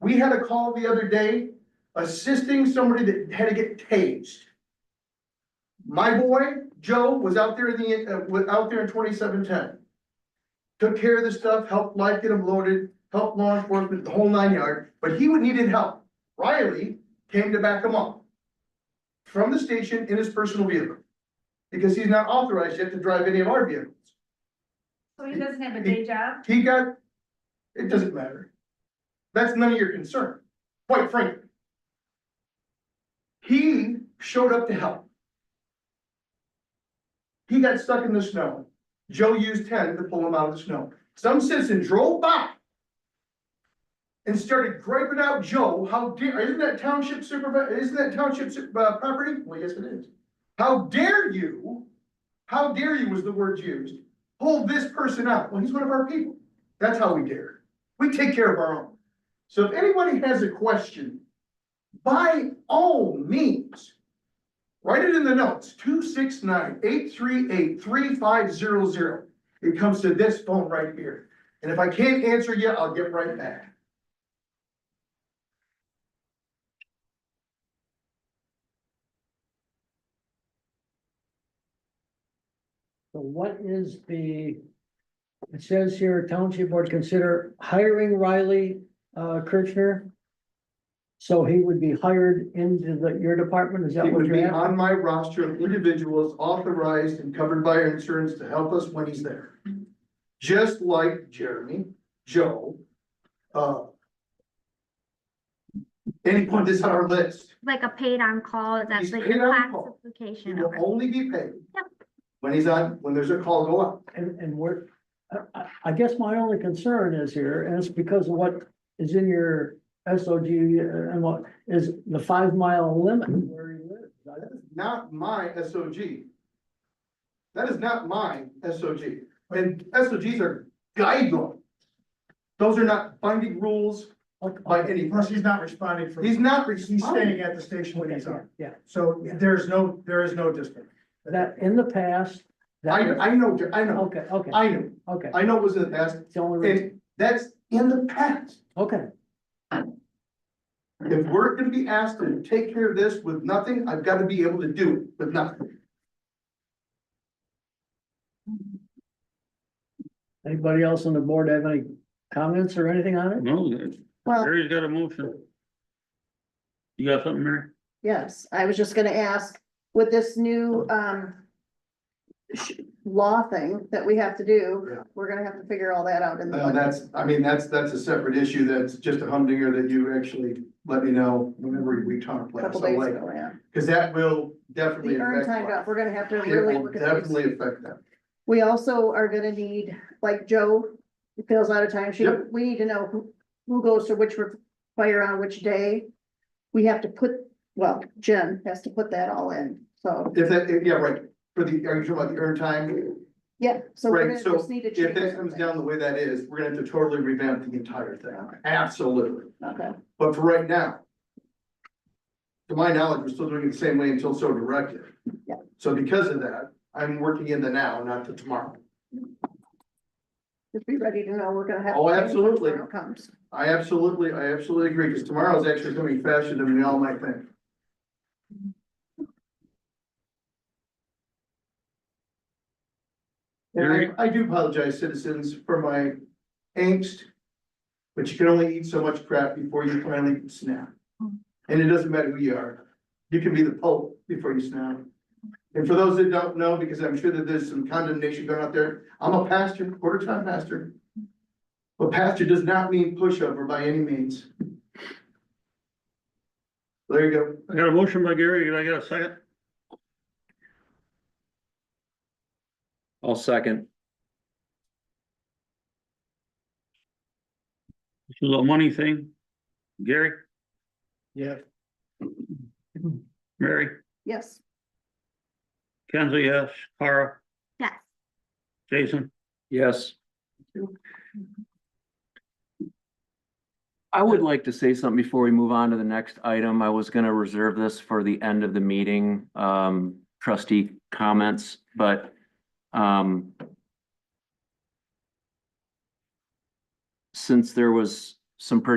We had a call the other day assisting somebody that had to get tased. My boy, Joe, was out there in the, uh, was out there in twenty-seven ten. Took care of the stuff, helped light, get him loaded, helped law enforcement, the whole nine yard, but he would needed help. Riley came to back him up. From the station in his personal vehicle. Because he's not authorized yet to drive any of our vehicles. So he doesn't have a day job? He got, it doesn't matter. That's none of your concern, quite frankly. He showed up to help. He got stuck in the snow. Joe used ten to pull him out of the snow. Some citizen drove by and started griping out Joe, how dare, isn't that township supervisor, isn't that township su- uh, property? Well, yes, it is. How dare you, how dare you was the word used, hold this person out. Well, he's one of our people. That's how we dare. We take care of our own. So if anybody has a question, by all means, write it in the notes, 269-838-3500. It comes to this phone right here. And if I can't answer you, I'll get right back. So what is the, it says here, township board consider hiring Riley, uh, Kirchner? So he would be hired into the, your department, is that It what would be you're at? on my roster of individuals authorized and covered by our insurance to help us when he's there. Just like Jeremy, Joe, uh. Anyone that's on our list, like a paid on call, that's He's like paid your on call. he classification will of it. only be paid. Yep. When he's on, when there's a call go up. And, and we're, I, I- I guess my only concern is here, and it's because of what is in your S O G uh, and what is the five mile limit where he lives. I- That is not my S O G. That is not my S O G, and S O Gs are guidelines. Those are not binding rules okay, by any, Plus, he's not responding for, he's not he's responding. staying at the station when okay, he's on, Yeah, so there's no, there is no disconnect. that, in the past. that I, was- I know, Jer- I know, Okay, okay, I know, okay, I know it was in the past, it's the only reason, and that's in the past. okay. If we're gonna be asked to take care of this with nothing, I've gotta be able to do it with nothing. Anybody else on the board have any comments or anything on it? No, that- Well, Mary's got a motion. You got something, Mary? yes, I was just gonna ask, with this new, um. sh- Law thing that we have to do, Yeah. we're gonna have to figure all that out in the Uh, budget. that's, I mean, that's, that's a separate issue, that's just a humdinger that you actually let me know whenever we talk a last, Couple so days like, ago, yeah. cause that will definitely The earned affect. time off, we're gonna have to It really will look at these. definitely affect that. We also are gonna need, like Joe fills out a time sheet, Yep. we need to know who, who goes to which fire on which day. We have to put, well, Jen has to put that all in, so, If that, if- yeah, right, for the, are you talking about the earned time? yeah, so we're Right, gonna so just need to If change. that comes something. down the way that is, we're gonna have to totally revamp the entire thing, absolutely. Okay, But for right now. To my knowledge, we're still doing it the same way until so directed. Yeah. So because of that, I'm working in the now, not the tomorrow. just be ready to know, we're gonna have. to Oh, change when absolutely. tomorrow Comes. I absolutely, I absolutely agree, because tomorrow's actually coming faster than we all might think. And I, I do apologize, citizens, for my angst. But you can only eat so much crap before you finally snap. And it doesn't matter who you are, you can be the Pope before you snap. And for those that don't know, because I'm sure that there's some condemnation going out there, I'm a pastor, quarter-time pastor. But pastor does not mean pushover by any means. There you go. I got a motion by Gary, and I got a second? I'll second. It's a little money thing. Gary, Yeah. Mary, Yes, Kenzie, yes, Tara, Yes, Jason, Yes. I would like to say something before we move on to the next item. I was gonna reserve this for the end of the meeting, um, trustee comments, but, um, since there was some pretty